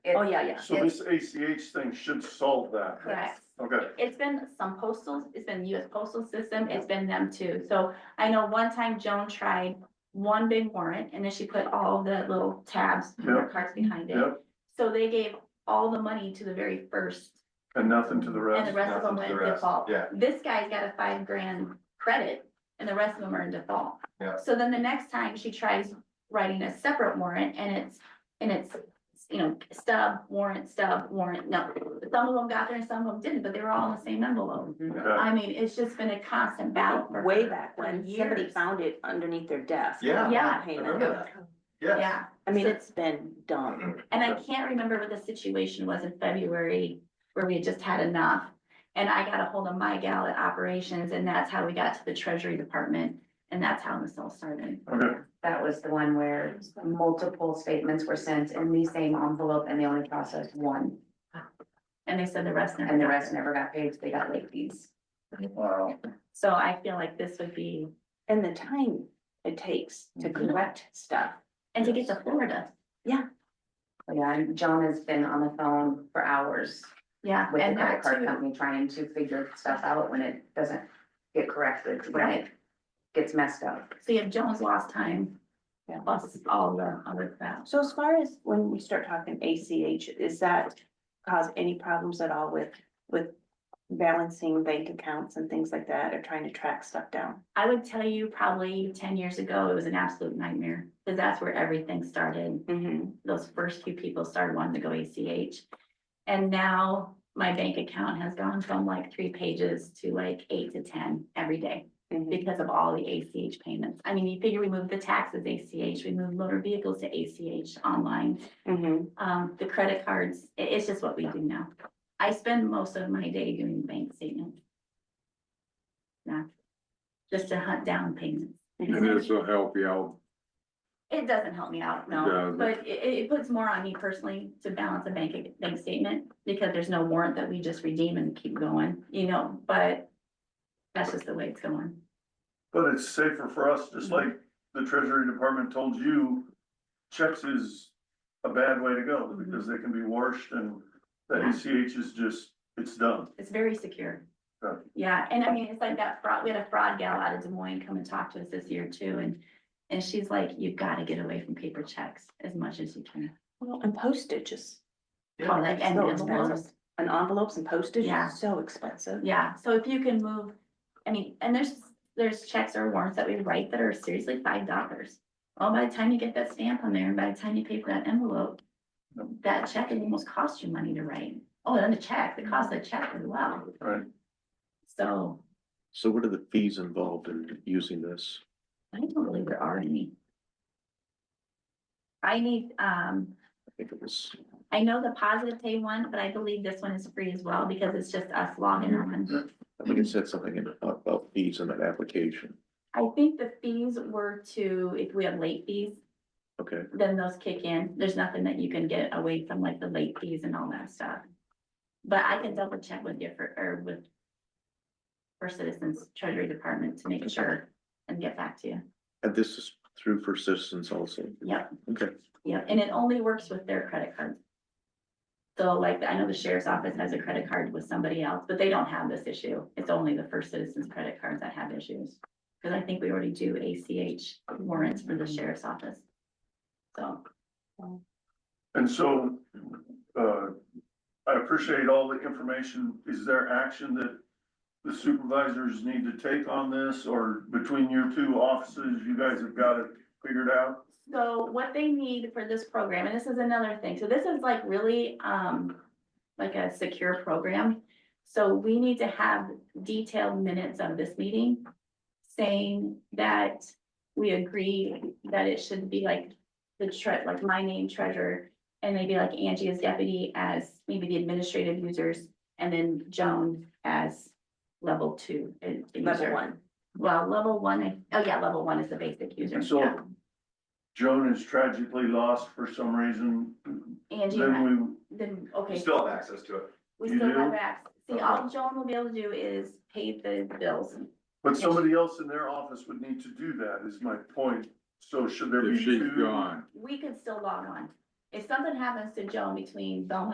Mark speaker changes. Speaker 1: Oh, yeah, yeah.
Speaker 2: So this ACH thing should solve that.
Speaker 1: Correct.
Speaker 2: Okay,
Speaker 1: It's been some postal, it's been US postal system, it's been them too. So I know one time Joan tried one big warrant and then she put all the little tabs,
Speaker 2: Yeah.
Speaker 1: cards behind it.
Speaker 2: Yep.
Speaker 1: So they gave all the money to the very first.
Speaker 2: and nothing to the
Speaker 1: And
Speaker 2: rest.
Speaker 1: the rest of them
Speaker 3: nothing
Speaker 1: went
Speaker 3: to the
Speaker 1: in
Speaker 3: rest,
Speaker 1: default.
Speaker 3: yeah.
Speaker 1: This guy's got a five grand credit and the rest of them are in default.
Speaker 3: Yeah.
Speaker 1: So then the next time she tries writing a separate warrant and it's, and it's, you know, stub, warrant, stub, warrant, no. Some of them got there and some of them didn't, but they were all in the same envelope.
Speaker 2: Yeah,
Speaker 1: I mean, it's just been a constant battle for.
Speaker 4: Way
Speaker 1: her
Speaker 4: back
Speaker 1: for
Speaker 4: when, somebody
Speaker 1: years.
Speaker 4: found it underneath their desk.
Speaker 3: Yeah.
Speaker 1: Yeah.
Speaker 4: Payment.
Speaker 3: I remember that. Mm-hmm. Yes.
Speaker 1: Yeah,
Speaker 4: I mean,
Speaker 1: So-
Speaker 4: it's been done.
Speaker 1: and I can't remember what the situation was in February where we had just had enough. And I got a hold of my gal at operations and that's how we got to the treasury department and that's how this all started.
Speaker 2: okay,
Speaker 5: That was the one where multiple statements were sent in the same envelope and they only processed one.
Speaker 1: And they said the rest. never
Speaker 5: And the
Speaker 1: got
Speaker 5: rest
Speaker 1: it.
Speaker 5: never got paid, so they got late fees.
Speaker 2: wow,
Speaker 1: So I feel like this would be,
Speaker 4: And the time it takes to
Speaker 1: Mm-hmm.
Speaker 5: Mhm.
Speaker 4: correct stuff.
Speaker 1: and to get to Florida,
Speaker 5: Yeah, and John has been on the phone for hours
Speaker 1: yeah.
Speaker 5: with the
Speaker 1: and
Speaker 5: credit
Speaker 1: that
Speaker 5: card
Speaker 1: too.
Speaker 5: company trying to figure stuff out when it doesn't get corrected, when it gets messed up.
Speaker 1: So you have Jones lost time,
Speaker 4: Yeah.
Speaker 1: plus all the other crap.
Speaker 4: So as far as when we start talking ACH, is that cause any problems at all with, with balancing bank accounts and things like that, or trying to track stuff down?
Speaker 1: I would tell you probably ten years ago, it was an absolute nightmare, because that's where everything started.
Speaker 4: Mm-hmm.
Speaker 1: those first few people started wanting to go ACH. And now my bank account has gone from like three pages to like eight to ten every day because of all the ACH payments. I mean, you figure we moved the taxes ACH, we moved motor vehicles to ACH online,
Speaker 4: Mm-hmm.
Speaker 1: um, the credit cards, i- it's just what we do now. I spend most of my day doing bank statements. Yeah, just to hunt down payments.
Speaker 6: And this will help you out.
Speaker 1: It doesn't help me out, no,
Speaker 6: doesn't.
Speaker 1: but it, it puts more on me personally to balance a bank, bank statement, because there's no warrant that we just redeem and keep going, you know, but that's just the way it's going.
Speaker 2: but it's safer for us, just like the treasury department told you, checks is a bad way to go,
Speaker 1: Mm-hmm.
Speaker 2: because they can be washed and the ACH is just, it's done.
Speaker 1: It's very secure.
Speaker 2: Right.
Speaker 1: Yeah, and I mean, it's like that fraud, we had a fraud gal out of Des Moines come and talk to us this year too, and, and she's like, you've gotta get away from paper checks as much as you can.
Speaker 4: Well, and postage is.
Speaker 1: Oh, like, and
Speaker 4: So
Speaker 1: it's
Speaker 4: expensive. And envelopes and postage
Speaker 1: Yeah.
Speaker 4: is so expensive.
Speaker 1: Yeah, so if you can move, I mean, and there's, there's checks or warrants that we write that are seriously five dollars. Well, by the time you get that stamp on there, and by the time you pay for that envelope,
Speaker 2: Yep.
Speaker 1: that check it almost cost you money to write. Oh, and the check, the cost of the check as well.
Speaker 2: Right.
Speaker 1: So
Speaker 7: So what are the fees involved in using this?
Speaker 1: I don't believe there are any. I need, um,
Speaker 7: I think it was,
Speaker 1: I know the positive pay one, but I believe this one is free as well because it's just us logging on.
Speaker 7: I think it said something in- about fees in that application.
Speaker 1: I think the fees were to, if we have late fees,
Speaker 7: Okay,
Speaker 1: then those kick in. There's nothing that you can get away from like the late fees and all that stuff. But I can double check with you for, or with First Citizens Treasury Department to make sure and get back to you.
Speaker 7: and this is through for citizens also?
Speaker 1: Yep.
Speaker 7: Okay,
Speaker 1: Yeah, and it only works with their credit card. So like, I know the sheriff's office has a credit card with somebody else, but they don't have this issue. It's only the First Citizens credit cards that have issues. Cause I think we already do ACH warrants for the sheriff's office. So.
Speaker 2: And so, uh, I appreciate all the information. Is there action that the supervisors need to take on this or between your two offices, you guys have got it figured out?
Speaker 1: So what they need for this program, and this is another thing, so this is like really, um, like a secure program. So we need to have detailed minutes of this meeting saying that we agree that it should be like the tre- like my name treasurer. And maybe like Angie as deputy as maybe the administrative users and then Joan as level two. uh,
Speaker 4: Level
Speaker 1: user.
Speaker 4: one.
Speaker 1: Well, level one, I- oh yeah, level one is the basic user.
Speaker 2: And so-
Speaker 1: yeah.
Speaker 2: Joan is tragically lost for some reason.
Speaker 1: Angie. has-
Speaker 2: Then
Speaker 1: Then, okay.
Speaker 3: You still have access to it.
Speaker 1: We
Speaker 2: You
Speaker 1: still have
Speaker 2: do?
Speaker 1: access. See, all Joan will be able to do is pay the bills.
Speaker 2: we, but somebody else in their office would need to do that is my point. So should there be
Speaker 6: If she's
Speaker 2: two?
Speaker 6: gone,
Speaker 1: We could still log on. if something happens to Joan between Belmont